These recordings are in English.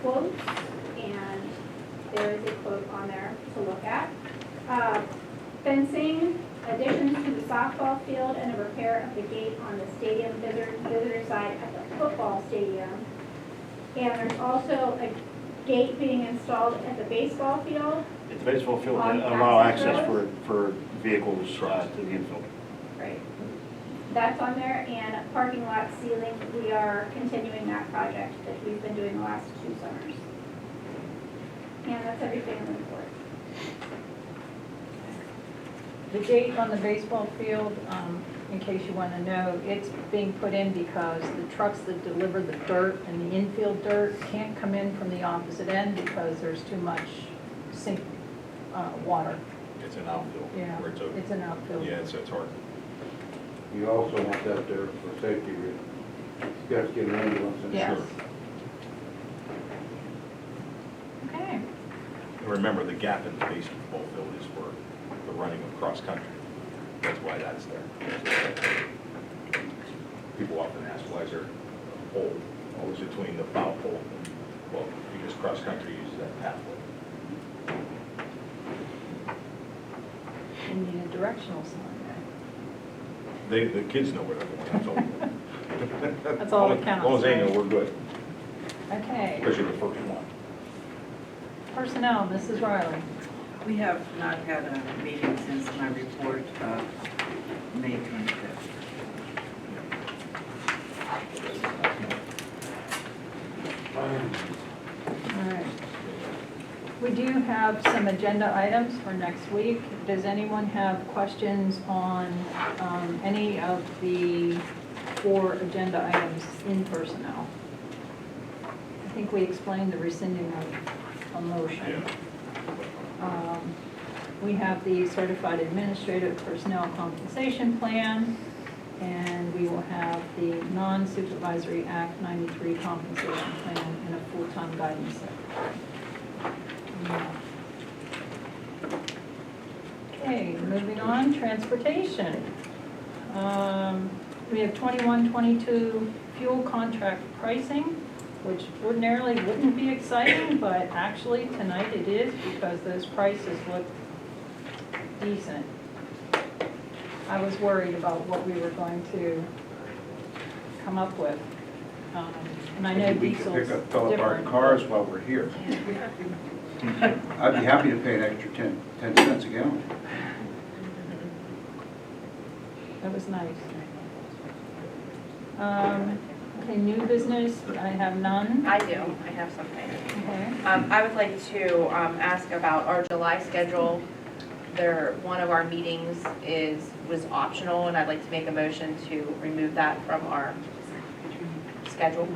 quotes, and there is a quote on there to look at. Uh, Fencing, additions to the softball field and a repair of the gate on the stadium visitor, visitor side at the football stadium. And there's also a gate being installed at the baseball field, At the baseball field, On to allow access access for, for vehicles uh, to the infield. Right. That's on there, and parking lot ceiling, we are continuing that project that we've been doing the last two summers. And that's everything in the report. The gate on the baseball field, um, in case you want to know, it's being put in because the trucks that deliver the dirt and the infield dirt can't come in from the opposite end because there's too much sink, uh, water. It's an outfield Yeah, where it's open. it's an outfield. Yeah, it's, it's hard. You also want that there for safety reasons. You got to get an ambulance in Yes. there. Okay, And Remember, the gap in the baseball field is for the running of cross-country. That's why that's there. People often ask, why is there a hole always between the foul pole? and- Well, because cross-country uses that pathway. we need a directional sign. They, the kids know where they're going, that's all. That's all that counts, As long as they right? know, we're good, Okay, especially the first one. personnel, Mrs. Riley. We have not had a meeting since my report of May 25th. All right. We do have some agenda items for next week. Does anyone have questions on um, any of the four agenda items in personnel? I think we explained the rescinding of a motion. Um, We have the certified administrative personnel compensation plan, and we will have the non-supervisory Act 93 compensation plan and a full-time guidance secretary. Okay, moving on, transportation. Um, We have 21, 22 fuel contract pricing, which ordinarily wouldn't be exciting, but actually tonight it is because those prices look decent. I was worried about what we were going to come up with. Um, And I know We can diesel's pick up, fill up our different. cars while we're here. I'd be happy to pay an extra 10, 10 cents a gallon. That was nice. Um, Okay, new business, I have none. I do, I have something. Okay. Um, I would like to, um, ask about our July schedule. There, one of our meetings is, was optional, and I'd like to make a motion to remove that from our schedule.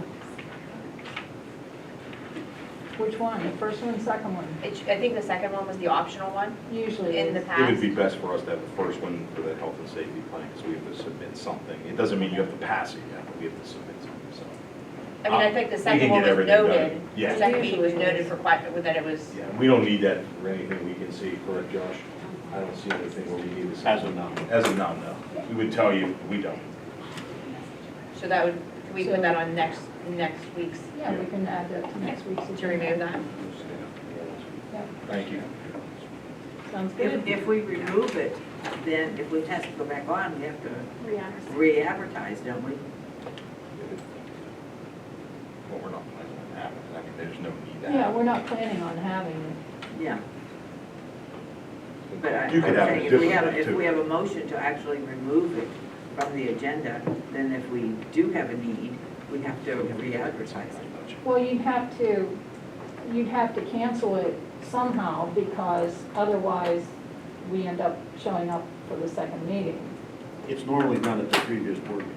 Which one? The first one, second one? It, sh- I think the second one was the optional one Usually in the is. It past. would be best for us to have the first one for the health and safety plan, because we have to submit something. It doesn't mean you have to pass it yet, but we have to submit something, so. I mean, I think the We can second one get was everything done. noted. Yeah. The second meeting was Usually noted is. for quite, that it was, Yeah, we don't need that for anything we can see, correct, Josh? I don't see anything where we need this. As of now. As of now, no. We would tell you, we don't. so that would, can we So- put that on next, next week's, Yeah, we can add that to next week's. to remove agenda. that? Thank you. Sounds If, good. if we remove it, then if we have to go back on, we have to Brianna. re-advertise, don't we? Well, we're not planning on having it. I mean, there's no need to Yeah, have. we're not planning on having it. Yeah. But I- You could I'm have a saying if we different have, one, if too. we have a motion to actually remove it from the agenda, then if we do have a need, we have to re-advertise it. Well, you'd have to, you'd have to cancel it somehow because otherwise we end up showing up for the second meeting. It's normally done at the previous board meeting.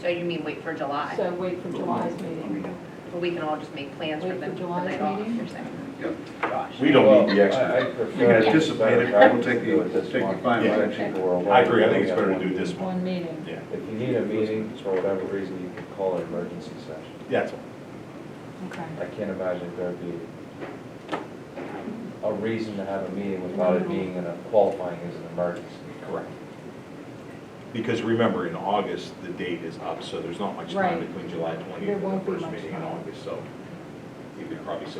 So you mean wait for July? So wait for July's meeting. But we can all just make plans for Wait for them July's tonight off, meeting? you're saying? Yep. Gosh. We don't need the extra. You can anticipate it, I will take the, take the final Yeah. action. I agree, I think it's better to do this one. One meeting. Yeah, If you need a meeting, for whatever reason, you can call an emergency session. that's all. Okay. I can't imagine there'd be a reason to have a meeting without it being in a qualifying as an emergency. Correct. Because remember, in August, the date is up, so there's not much time Right. between July There 20th and won't the be first much meeting in time. August, so if probably so